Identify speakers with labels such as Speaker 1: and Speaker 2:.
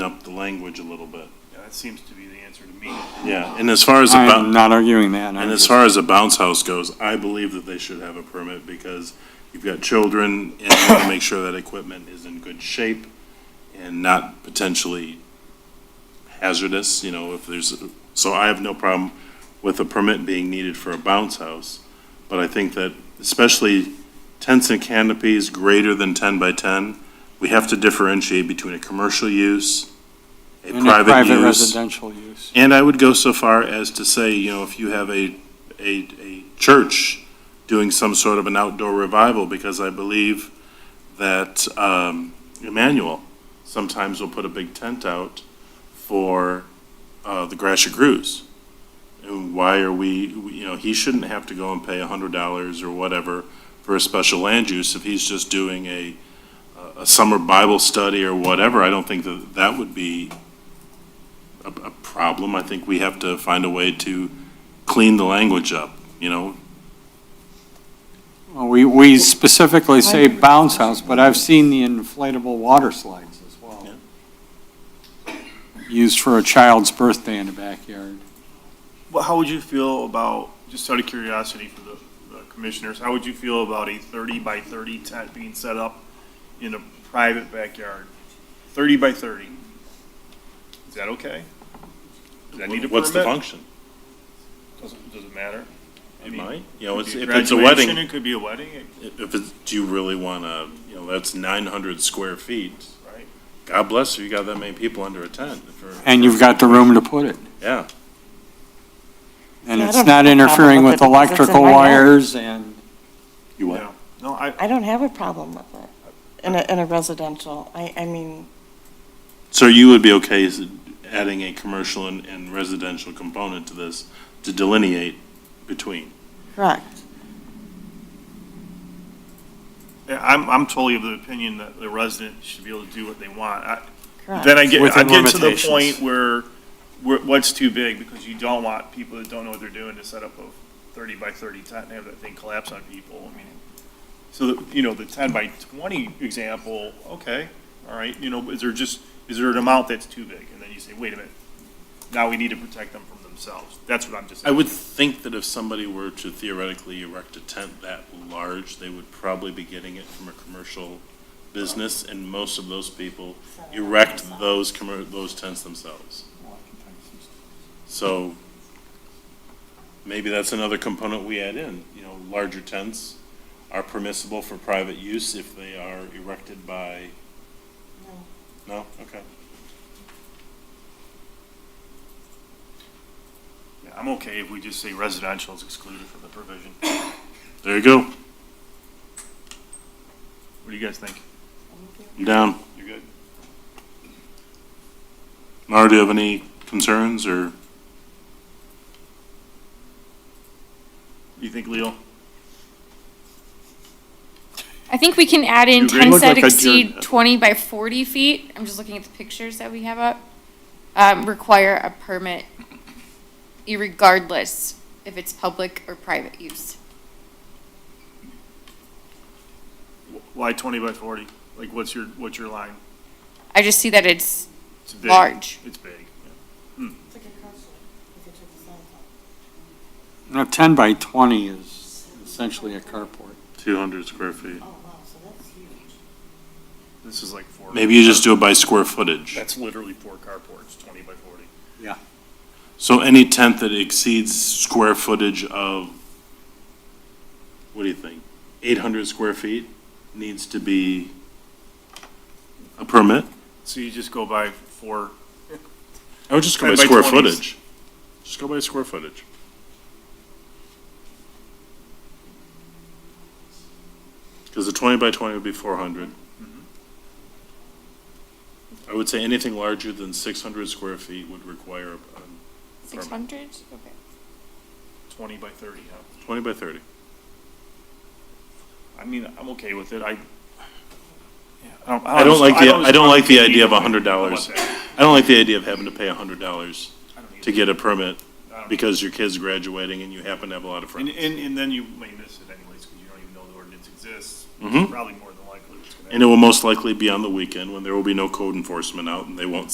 Speaker 1: up the language a little bit.
Speaker 2: Yeah, that seems to be the answer to me.
Speaker 1: Yeah, and as far as the,
Speaker 3: I'm
Speaker 1: bou-
Speaker 3: not arguing that. I'm
Speaker 1: and as
Speaker 3: just-
Speaker 1: far as the bounce house goes, I believe that they should have a permit because you've got children and you want to make sure that equipment is in good shape and not potentially hazardous, you know, if there's, so I have no problem with a permit being needed for a bounce house. But I think that especially tents and canopies greater than ten by ten, we have to differentiate between a commercial use, a
Speaker 3: And a
Speaker 1: private
Speaker 3: private
Speaker 1: use.
Speaker 3: residential use.
Speaker 1: And I would go so far as to say, you know, if you have a, a, a church doing some sort of an outdoor revival, because I believe that, um, Emmanuel sometimes will put a big tent out for, uh, the Grashit Cruise. And why are we, you know, he shouldn't have to go and pay a hundred dollars or whatever for a special land use if he's just doing a, a summer Bible study or whatever. I don't think that that would be a, a problem. I think we have to find a way to clean the language up, you know?
Speaker 3: Well, We, we specifically say bounce house, but I've seen the inflatable water slides as well. Used for a child's birthday in the backyard.
Speaker 2: Well, how would you feel about, just out of curiosity for the the commissioners, how would you feel about a thirty by thirty tent being set up in a private backyard? Thirty by thirty? Is that okay? Does that need a
Speaker 1: What's the
Speaker 2: permit?
Speaker 1: function?
Speaker 2: Doesn't, doesn't matter. I
Speaker 1: It
Speaker 2: mean,
Speaker 1: might, you
Speaker 2: could
Speaker 1: know, it's-
Speaker 2: be
Speaker 1: if it's a
Speaker 2: graduation,
Speaker 1: wedding,
Speaker 2: It could be a wedding, it-
Speaker 1: if it's, do you really want to, you know, that's nine hundred square feet.
Speaker 2: right?
Speaker 1: God bless you, you got that many people under a tent for,
Speaker 3: And you've got the room to put it.
Speaker 1: yeah.
Speaker 3: And
Speaker 4: Yeah, I
Speaker 3: it's
Speaker 4: don't
Speaker 3: not
Speaker 4: have a problem
Speaker 3: interfering with
Speaker 4: with it because it's in
Speaker 3: electrical
Speaker 4: my yard.
Speaker 3: wires and,
Speaker 1: You
Speaker 2: what? No, I,
Speaker 4: I don't have a problem with it in a, in a residential. I, I mean,
Speaker 1: So you would be okay s- adding a commercial and, and residential component to this to delineate between?
Speaker 4: correct.
Speaker 2: yeah, I'm, I'm totally of the opinion that the resident should be able to do what they want. I,
Speaker 4: Correct.
Speaker 2: Then I get, I
Speaker 3: Within
Speaker 2: get to the
Speaker 3: limitations.
Speaker 2: point where, where, what's too big, because you don't want people that don't know what they're doing to set up a thirty by thirty tent and have that thing collapse on people, I mean. So, the- you know, the ten by twenty example, okay, all right, you know, is there just, is there an amount that's too big? And then you say, wait a minute, now we need to protect them from themselves, that's what I'm just.
Speaker 1: I would think that if somebody were to theoretically erect a tent that large, they would probably be getting it from a commercial business, and most of those people erect those commer, those tents themselves. So maybe that's another component we add in, you know, larger tents are permissible for private use if they are erected by. No, okay.
Speaker 2: Yeah, I'm okay if we just say residential is excluded from the provision,
Speaker 1: There you go,
Speaker 2: what do you guys think?
Speaker 1: I'm down.
Speaker 2: You're good?
Speaker 1: Mara, do you have any concerns or?
Speaker 2: You think, Leo?
Speaker 5: I think we can add in
Speaker 2: You agree?
Speaker 5: tents
Speaker 2: Look
Speaker 5: that
Speaker 2: like a uh,
Speaker 5: exceed
Speaker 2: Jordan.
Speaker 5: twenty by forty feet, I'm just looking at the pictures that we have up, um, require a permit irregardless if it's public or private use.
Speaker 2: Why twenty by forty? Like, what's your, what's your line?
Speaker 5: I just see that it's
Speaker 2: It's big.
Speaker 5: large.
Speaker 2: It's big.
Speaker 3: you know, 10 by 20 is essentially a carport.
Speaker 1: Two hundred square feet.
Speaker 2: This is like four.
Speaker 1: Maybe you just do it by square footage.
Speaker 2: That's literally four carports, twenty by forty.
Speaker 1: So any tent that exceeds square footage of, what do you think? Eight hundred square feet needs to be a permit?
Speaker 2: So you just go by four.
Speaker 1: I would just go by
Speaker 2: 10 by
Speaker 1: square
Speaker 2: 20s.
Speaker 1: footage. Just go by square footage. Because the twenty by twenty would be four hundred. I would say anything larger than six hundred square feet would require a, a
Speaker 5: Six hundred, okay.
Speaker 2: Twenty by thirty, huh?
Speaker 1: twenty by thirty.
Speaker 2: I mean, I'm okay with it. I. yeah, don't-
Speaker 1: I don't like the, I don't like the idea of a hundred
Speaker 2: I don't
Speaker 1: dollars.
Speaker 2: want that.
Speaker 1: I don't like the idea of having to pay a hundred dollars
Speaker 2: I don't
Speaker 1: to
Speaker 2: either.
Speaker 1: get a permit
Speaker 2: I don't-
Speaker 1: because your kid's graduating and you happen to have a lot of
Speaker 2: And,
Speaker 1: friends.
Speaker 2: and, and then you may miss it anyways, because you don't even know the ordinance exists.
Speaker 1: Mhm.
Speaker 2: Probably more than likely it's gonna.
Speaker 1: And it will most likely be on the weekend when there will be no code enforcement out and they won't